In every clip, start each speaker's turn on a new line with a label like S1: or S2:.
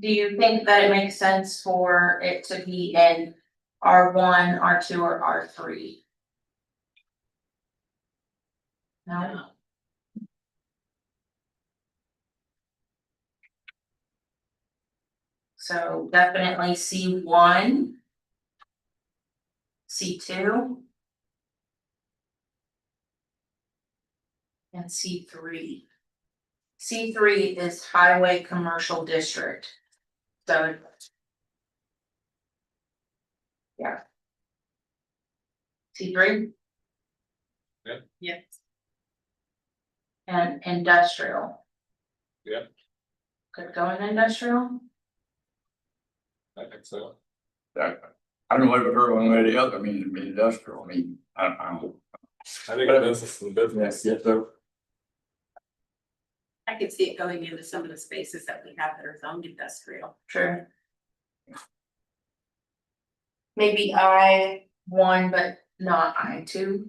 S1: do you think that it makes sense for it to be in R one, R two, or R three? No, so definitely C one. C two. And C three. C three is highway commercial district. So. Yeah. C three?
S2: Yep.
S1: Yes. And industrial.
S2: Yep.
S1: Could go in industrial,
S2: I think so.
S3: I I don't know if I heard one way or the other, I mean, it'd be industrial, I mean, I I don't.
S2: I think business is business.
S3: Yes, so.
S4: I could see it going into some of the spaces that we have that are zoned industrial.
S1: true. Maybe I one, but not I two.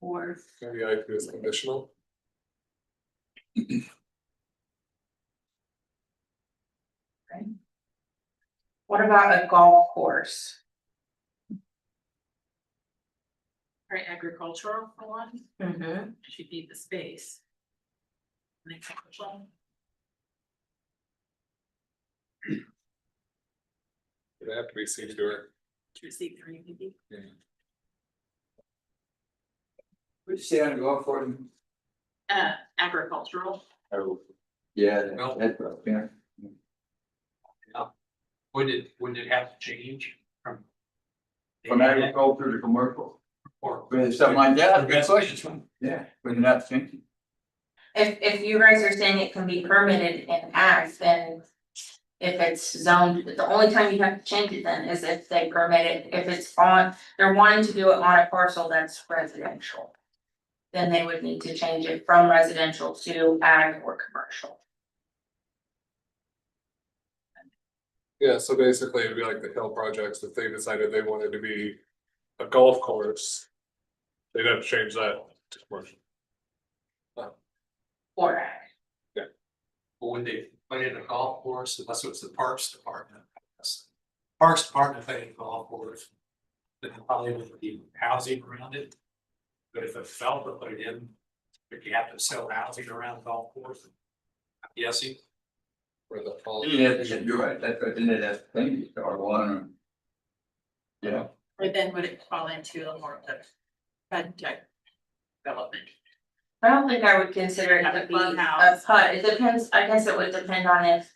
S4: Or
S2: Maybe I feel is conditional.
S1: What about a golf course?
S4: or agricultural for one,
S1: Mm-hmm.
S4: should be the space. And agricultural,
S2: It have to be seen to her.
S4: two C three maybe.
S3: Would you say I'd go for it?
S4: Uh, agricultural,
S3: Oh, yeah.
S5: No.
S3: that's right, yeah.
S5: Would it, would it have to change from?
S3: From agriculture to commercial,
S5: Or.
S3: or something like that,
S5: Good question.
S3: yeah, when you're not thinking.
S1: If if you guys are saying it can be permitted in ag, then. If it's zoned, the only time you have to change it then is if they permit it, if it's on, they're wanting to do it on a parcel that's residential. Then they would need to change it from residential to ag or commercial.
S2: Yeah, so basically it'd be like the hill projects, if they decided they wanted to be a golf course. They'd have to change that to commercial.
S1: Or ag,
S5: But When they put in a golf course, unless it was the Parks Department. that's- Parks Department put in a golf course. Then probably would be housing around it. But if a developer put it in, would you have to sell housing around the golf course? I'm guessing.
S2: Where the fall.
S3: Yeah, you're right, that's right, then it has to think, or one. Yeah,
S4: or then would it fall into a more of a fun type development?
S1: I don't think I would consider it
S4: Have a
S1: to be a
S4: clubhouse.
S1: hut, it depends, I guess it would depend on if.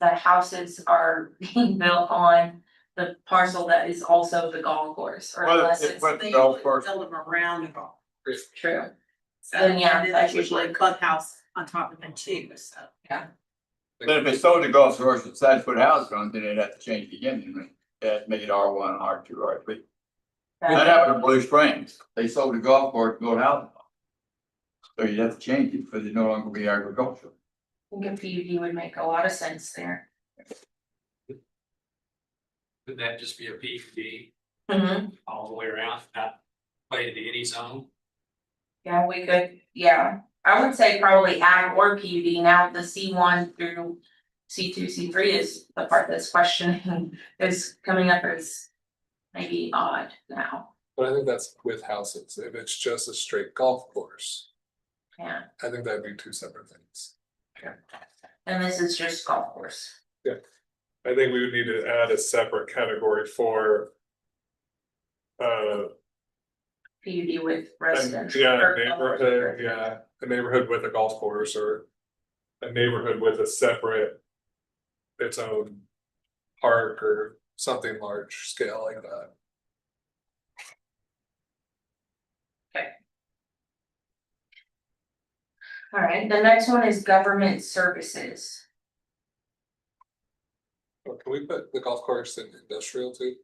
S1: The houses are being built on the parcel that is also the golf course, or
S3: Well,
S1: unless
S3: it-
S1: it's
S3: well-
S4: They
S3: Golf
S4: usually
S3: course.
S4: Build them around the golf.
S1: true.
S4: So
S1: Then, yeah,
S4: and then
S1: that
S4: there's
S1: would
S4: usually a
S1: work.
S4: clubhouse on top of them too, so.
S3: but if it's sold to golf course, it's side foot house, then it'd have to change again, and that'd make it R one, R two, R three. That happened in Blue Springs. They sold the golf course, to go to housing. So you have to change it because it no longer be agricultural.
S1: I think a PUD would make a lot of sense there.
S5: Could that just be a P D all the way around, not play into any zone?
S1: Yeah, we could, yeah, I would say probably ag or PUD, now the C one through C two, C three is the part that's questioning, is coming up as maybe odd now,
S2: But I think that's with houses, if it's just a straight golf course,
S1: yeah,
S2: I think that'd be two separate things.
S1: and this is just golf course.
S2: I think we would need to add a separate category for. Uh,
S1: PUD with
S2: and-
S1: residential.
S2: yeah,
S1: or-
S2: neighborhood, yeah, a neighborhood with a golf course or a neighborhood with a separate. Its own park or something large scale like that.
S1: Alright, the next one is government services.
S2: Or Can we put the golf course in industrial too?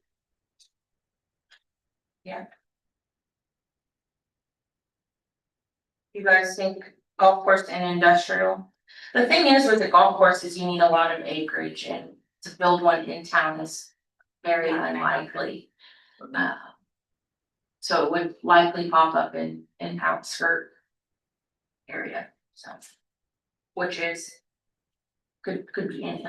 S1: You guys think golf course and industrial? The thing is with the golf course is you need a lot of acreage and to build one in town is very unlikely. Uh, So it would likely pop up in, in outskirt area, so. Which is, could, could be anything.